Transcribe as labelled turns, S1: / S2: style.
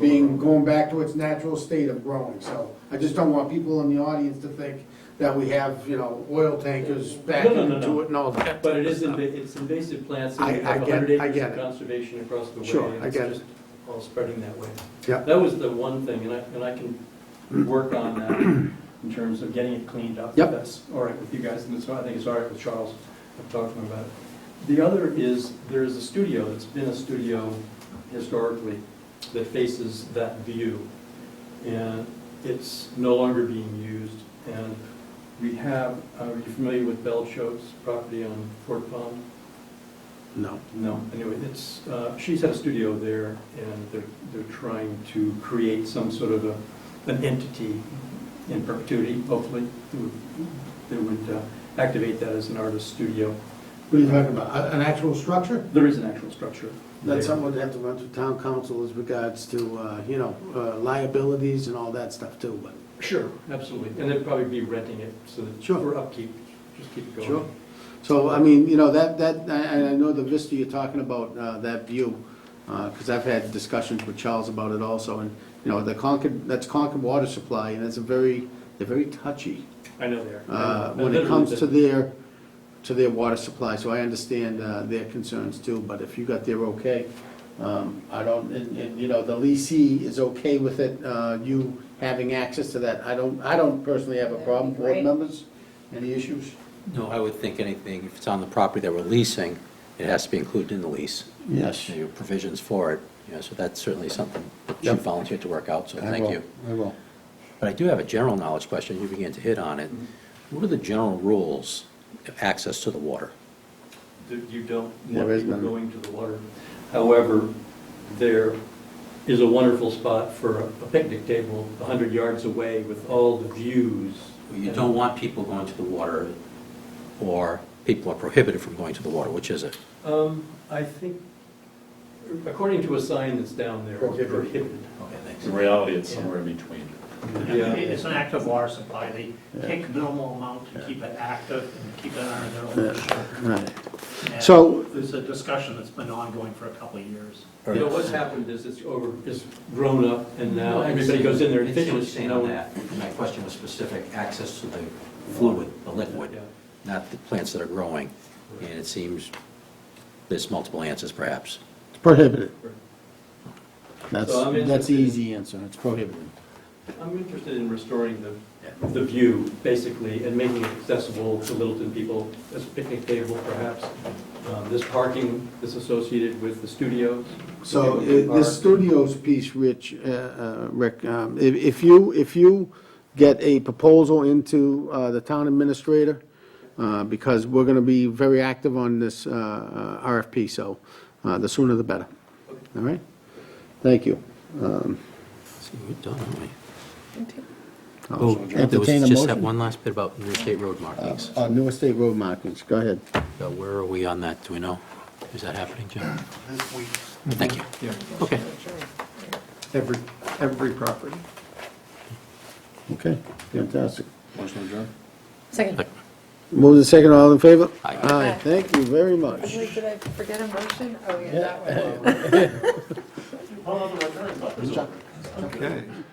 S1: being, going back to its natural state of growing, so. I just don't want people in the audience to think that we have, you know, oil tankers backing
S2: No, no, no, no.
S1: into it and all that.
S2: But it is inva- it's invasive plants,
S1: I-
S2: and we
S1: I
S2: have
S1: get-
S2: 100
S1: I
S2: acres
S1: get
S2: of
S1: it.
S2: conservation across the way.
S1: Sure,
S2: and
S1: I
S2: it's
S1: get it.
S2: just All spreading that way.
S1: Yeah.
S2: That was the one thing, and I, and I can work on that in terms of getting it cleaned up. if
S1: Yep.
S2: That's all right with you guys, and it's, I think it's all right with Charles, I've talked to him about it. The other is, there is a studio, that's been a studio historically, that faces that view. And it's no longer being used, and we have, uh, are you familiar with Bell Choate's property on Fort Pond?
S1: No.
S2: No. Anyway, it's, uh, she's had a studio there, and they're, they're trying to create some sort of a, an entity in perpetuity, hopefully, that would, that would uh, activate that as an artist studio.
S1: What are you talking about, A- an actual structure?
S2: There is an actual structure.
S1: That's
S2: there.
S1: something we'd have to run through town council as regards to, uh, you know, uh, liabilities and all that stuff too, but.
S2: Sure, absolutely, and they'd probably be renting it, so that,
S1: Sure.
S2: for upkeep, just keep it going.
S1: Sure. So, I mean, you know, that, that, I, I know the vista you're talking about, uh, that view, uh, cause I've had discussions with Charles about it also, and, you know, the Concord, that's Concord Water Supply, and it's a very, they're very touchy,
S2: I know they are.
S1: uh,
S2: I
S1: when it
S2: literally
S1: comes
S2: did-
S1: to their, to their water supply, so I understand, uh, their concerns too, but if you got their okay, um, I don't, and, and, you know, the leasee is okay with it, uh, you having access to that, I don't, I don't personally have a
S3: That'd be
S1: problem, board
S3: great.
S1: members, any issues?
S4: No, I would think anything, if it's on the property that we're leasing, it has to be included in the lease.
S1: Yes.
S4: There are provisions for it, you know, so that's certainly something that you
S1: Yep.
S4: volunteered to work out, so
S1: I
S4: thank
S1: will,
S4: you.
S1: I will.
S4: But I do have a general knowledge question, you began to hit on it. What are the general rules of access to the water?
S2: that you don't
S1: There
S2: want
S1: is
S2: people
S1: none.
S2: going to the water. However, there is a wonderful spot for a picnic table 100 yards away with all the views.
S4: You don't want people going to the water, or people are prohibited from going to the water, which is it?
S2: Um, I think, according to a sign that's down there, it's
S1: Prohibited.
S2: prohibited.
S4: Okay, thanks.
S5: In reality, it's somewhere in between.
S2: Yeah.
S6: It's an active water supply, they take minimal amount to keep it active and keep it under their ownership.
S1: Right.
S6: And
S1: So-
S6: There's a discussion that's been ongoing for a couple of years.
S2: You know, what's happened is it's over, it's grown up, and now
S4: I
S2: everybody goes in there and
S4: understand what you're
S2: fishes.
S4: saying
S2: no
S4: on
S2: one-
S4: that. My question was specific, access to the fluid, the liquid,
S2: Yeah.
S4: not the plants that are growing. And it seems there's multiple answers perhaps.
S1: It's prohibited. That's,
S2: So I'm
S1: that's the
S2: interested-
S1: easy answer, it's prohibited.
S2: I'm interested in restoring the, the view, basically, and making it accessible to Littleton people as a picnic table, perhaps. Um, This parking is associated with the studios.
S1: So
S2: People can
S1: i- this
S2: park.
S1: studios piece, Rich, uh, uh, Rick, um, if if you, if you get a proposal into uh, the town administrator, uh, because we're going to be very active on this uh, uh, RFP, so uh, the sooner the better. All right? Thank you.
S4: See, we're done, aren't we?
S1: I'll
S4: Oh, there was
S1: entertain a
S4: just that
S1: motion.
S4: one last bit about New State road markings.
S1: Uh, New Estate Road markings, go ahead.
S4: So Where are we on that? Do we know? Is that happening, Jim? This week. Thank you. Okay.
S7: Every, every property.
S1: Okay, fantastic.
S5: Motion adjourned?
S3: Second.
S1: Move the second, all in favor?
S4: Aye.
S1: Aye, thank you very much.
S3: Wait, did I forget a motion? Oh, yeah, that one.
S6: Hold on to my turn, but-
S7: Okay.